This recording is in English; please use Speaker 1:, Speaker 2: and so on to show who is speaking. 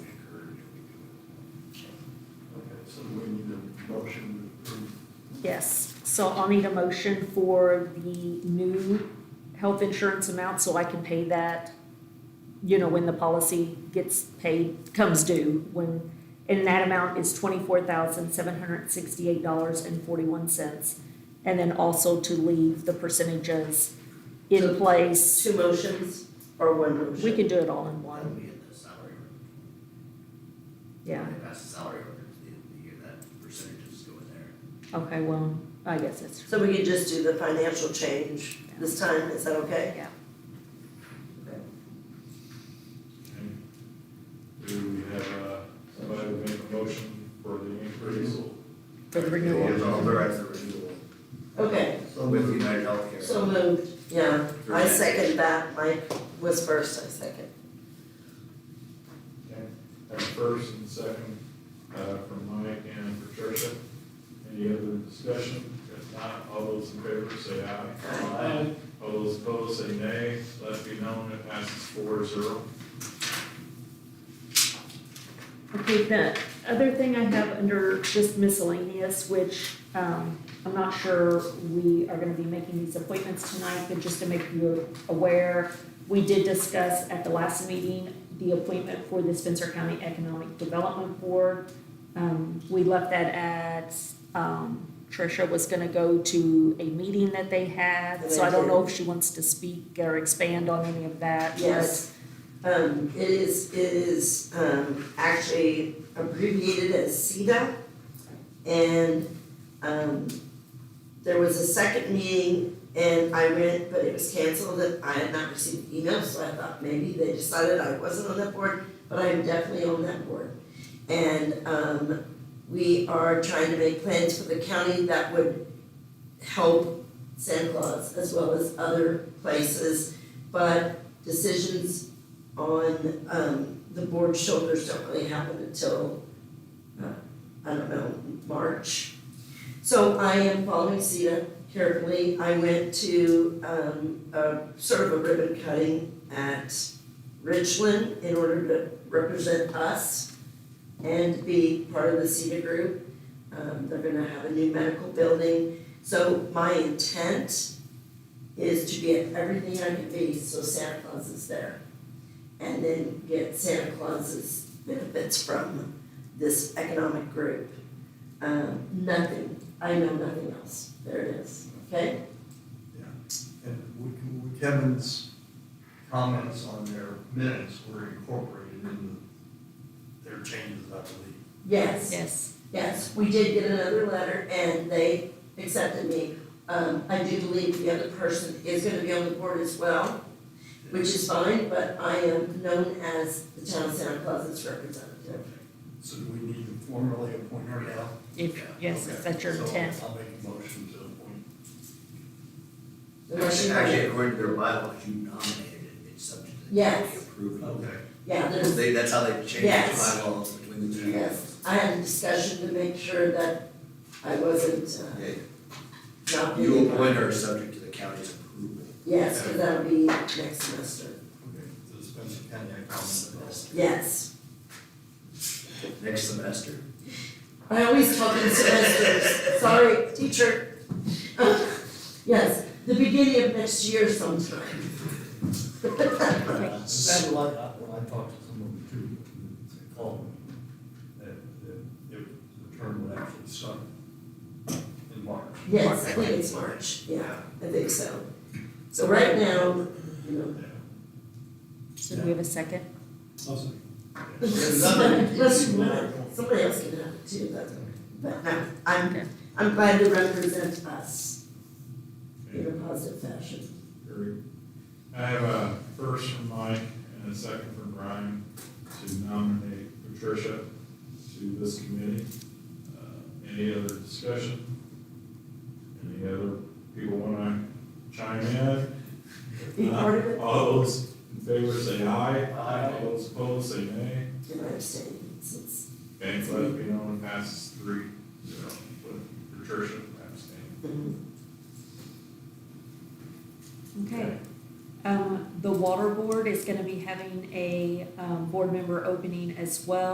Speaker 1: we need a motion to approve.
Speaker 2: Yes, so I'll need a motion for the new health insurance amount so I can pay that, you know, when the policy gets paid, comes due, when, and that amount is twenty-four thousand, seven hundred and sixty-eight dollars and forty-one cents. And then also to leave the percentages in
Speaker 3: So-
Speaker 2: place.
Speaker 3: Two motions or one motion?
Speaker 2: We can do it all in
Speaker 4: That'll
Speaker 2: one,
Speaker 4: be in the salary ordinance.
Speaker 2: yeah.
Speaker 4: They pass the salary ordinance at the end of the year, that percentages go in there.
Speaker 2: Okay, well, I guess it's,
Speaker 3: So we could just do the financial change this time, is that okay?
Speaker 2: yeah.
Speaker 5: Do we have, uh, somebody who make a motion for the increase?
Speaker 2: For the renewal.
Speaker 6: Is authorized the renewal
Speaker 3: Okay,
Speaker 1: So
Speaker 6: with
Speaker 1: moved.
Speaker 6: United Healthcare.
Speaker 3: so moved, yeah, I second that, Mike was first, I second.
Speaker 5: Okay. Have a first and second, uh, from Mike and Patricia. Any other discussion? If not, all those in favor say aye. Aye. All those opposed say nay. Let it be known it passes four zero.
Speaker 2: Okay, the other thing I have under just miscellaneous, which, um, I'm not sure we are gonna be making these appointments tonight, but just to make you aware, we did discuss at the last meeting the appointment for the Spencer County Economic Development Board. Um, we left that at, um, Tricia was gonna go to a meeting that they had, so I don't know if she wants to speak or expand on any of that, but-
Speaker 3: Yes. Um, it is, it is, um, actually abbreviated as CEDA. And, um, there was a second meeting and I went, but it was canceled and I had not received email, so I thought maybe they decided I wasn't on that board, but I am definitely on that board. And, um, we are trying to make plans for the county that would help Santa Claus as well as other places. But decisions on um the board shoulders don't really happen until uh, I don't know, March. So I am following CETA carefully. I went to um a sort of a ribbon cutting at Richland in order to represent us and be part of the CETA group. Um they're gonna have a new medical building. So my intent is to get everything I can be so Santa Claus is there. And then get Santa Claus's benefits from this economic group. Um, nothing, I know nothing else, there it is, okay?
Speaker 1: And we can- Kevin's comments on their minutes were incorporated into their changes, I believe.
Speaker 3: Yes,
Speaker 2: Yes.
Speaker 3: yes, we did get another letter and they accepted me. Um, I do believe the other person is gonna be on the board as well, which is fine, but I am known as the town Santa Claus's representative.
Speaker 1: So do we need to formally appoint her now?
Speaker 2: If, yes,
Speaker 1: Okay.
Speaker 2: if that's your
Speaker 1: So
Speaker 2: intent.
Speaker 1: I'll make a motion to appoint.
Speaker 3: Unless you-
Speaker 4: Actually, according to their bylaws, you nominated it, it's subject to the
Speaker 3: Yes.
Speaker 4: county approving.
Speaker 3: Yeah, there's
Speaker 4: They, that's how they changed the
Speaker 3: Yes.
Speaker 4: bylaws between the two.
Speaker 3: Yes, I had a discussion to make sure that I wasn't, uh,
Speaker 4: Okay,
Speaker 3: not.
Speaker 4: You appoint her subject to the county's approval.
Speaker 3: Yes, because that'll be next semester,
Speaker 1: Okay, so Spencer County Economic
Speaker 3: yes.
Speaker 4: Next semester.
Speaker 3: I always talk in semesters, sorry, teacher. Yes, the beginning of next year sometime.
Speaker 1: Development. Sounded like, I- when I talked to someone too, they called me, that, that it- the term would actually start in March.
Speaker 3: Yes, I think it's March, yeah, I think so. So right now, you know,
Speaker 1: Yeah.
Speaker 2: So do we have a second?
Speaker 3: Unless you want it, somebody else can have it too, that's, but no,
Speaker 2: Okay.
Speaker 3: I'm, I'm glad to represent us in
Speaker 5: Okay,
Speaker 3: a positive fashion.
Speaker 5: very- I have a first from Mike and a second from Brian to nominate Patricia to this committee. Uh, Any other discussion? Any other people wanna chime in? If
Speaker 3: Be part of
Speaker 5: not,
Speaker 3: it.
Speaker 5: All those in favor say aye. Aye. All those opposed say nay.
Speaker 3: And I abstain since,
Speaker 5: Okay, let it be known it passes three zero with Patricia abstaining.
Speaker 3: um,
Speaker 2: Okay. Um, the water board is gonna be having a, um, board member opening as well.